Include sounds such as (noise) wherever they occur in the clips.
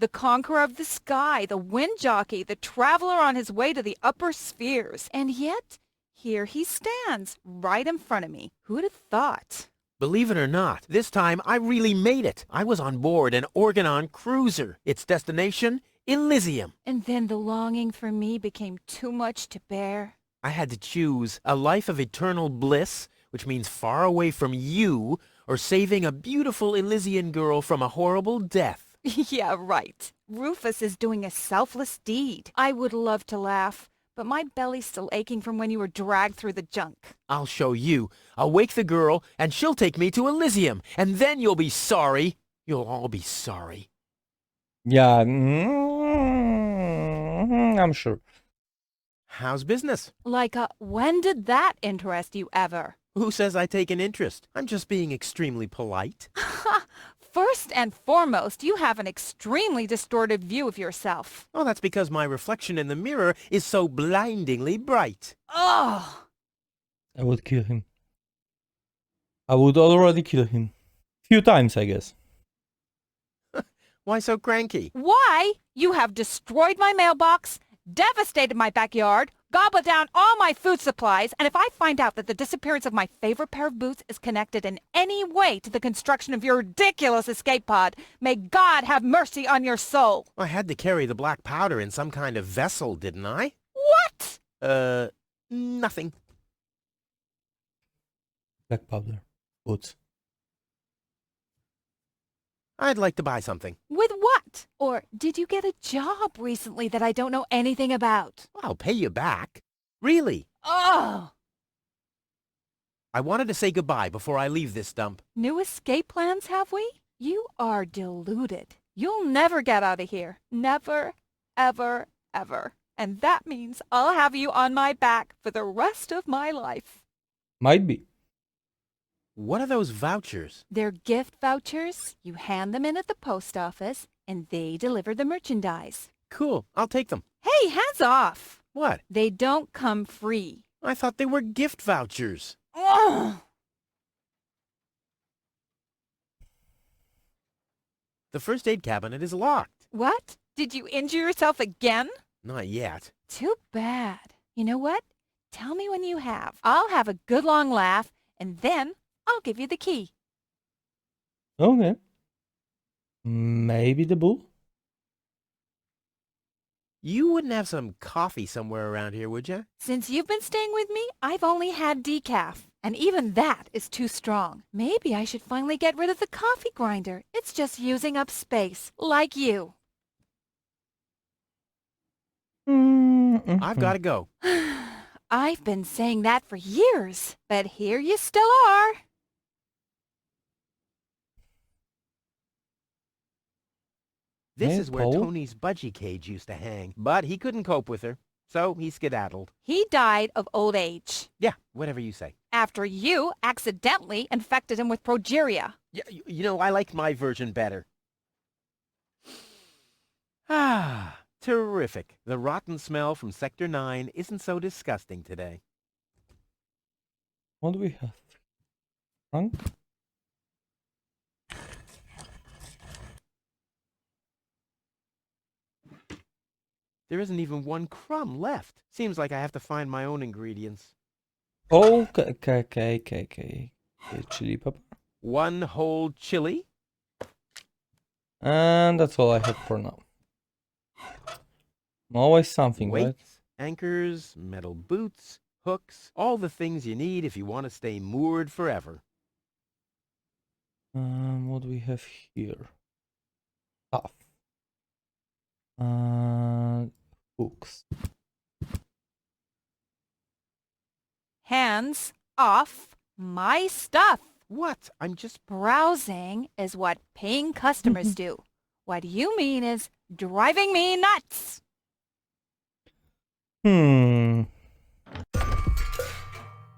the conqueror of the sky, the wind jockey, the traveler on his way to the upper spheres. And yet, here he stands, right in front of me. Who'd have thought? Believe it or not, this time I really made it. I was on board an Organon cruiser. Its destination, Elysium. And then the longing for me became too much to bear. (laughs) I had to choose a life of eternal bliss, which means far away from you, or saving a beautiful Elysian girl from a horrible death. yeah, right. Rufus is doing a selfless deed. I would love to laugh, but my belly's still aching from when you were dragged through the junk. I'll show you. I'll wake the girl, and she'll take me to Elysium, and then you'll be sorry. You'll all be sorry. Yeah, mm, I'm sure. How's business? Like a, when did that interest you ever? Who says I take an interest? I'm just being extremely polite. First and foremost, you have an extremely distorted view of yourself. Oh, that's because my reflection in the mirror is so blindingly bright. Ugh! I would kill him. I would already kill him. Few times, I guess. Why so cranky? Why? You have destroyed my mailbox, devastated my backyard, gobbled down all my food supplies, and if I find out that the disappearance of my favorite pair of boots is connected in any way to the construction of your ridiculous escape pod, may God have mercy on your soul. I had to carry the black powder in some kind of vessel, didn't I? What? Uh, nothing. Black powder. Boots. I'd like to buy something. With what? Or did you get a job recently that I don't know anything about? I'll pay you back. Really? Oh! I wanted to say goodbye before I leave this dump. New escape plans, have we? You are deluded. You'll never get out of here. Never, ever, ever. And that means I'll have you on my back for the rest of my life. Might be. What are those vouchers? They're gift vouchers. You hand them in at the post office, and they deliver the merchandise. Cool. I'll take them. Hey, hands off! What? They don't come free. I thought they were gift vouchers. Ugh! The first aid cabinet is locked. What? Did you injure yourself again? Not yet. Too bad. You know what? Tell me when you have. I'll have a good long laugh, and then I'll give you the key. Okay. Maybe the bull? You wouldn't have some coffee somewhere around here, would you? Since you've been staying with me, I've only had decaf, and even that is too strong. Maybe I should finally get rid of the coffee grinder. It's just using up space, like you. Mm, I've got to go. I've been saying that for years, but here you still are. This Yeah, is where Paul? Tony's budgie cage used to hang, but he couldn't cope with her, so he skedaddled. He died of old age Yeah, whatever you say. after you accidentally infected him with progeria. Yeah, you, you know, I liked my version better. Ah, terrific. The rotten smell from Sector 9 isn't so disgusting today. What do we have? Frank? There isn't even one crumb left. Seems like I have to find my own ingredients. Okay, okay, okay, okay, okay. Okay, Chili pepper. One whole chili? And that's all I have for now. Always something, right? Weights, anchors, metal boots, hooks, all the things you need if you want to stay moored forever. Um, what do we have here? Stuff. Uh, hooks. Hands off my stuff. What? I'm just... Browsing is what paying customers do. What you mean is driving me nuts. Hmm.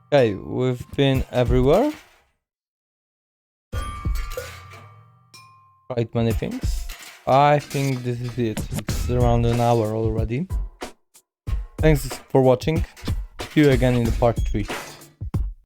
Okay, we've been everywhere. Tried many things. I think this is it. It's around an hour already. Thanks for watching. See you again in the part 3.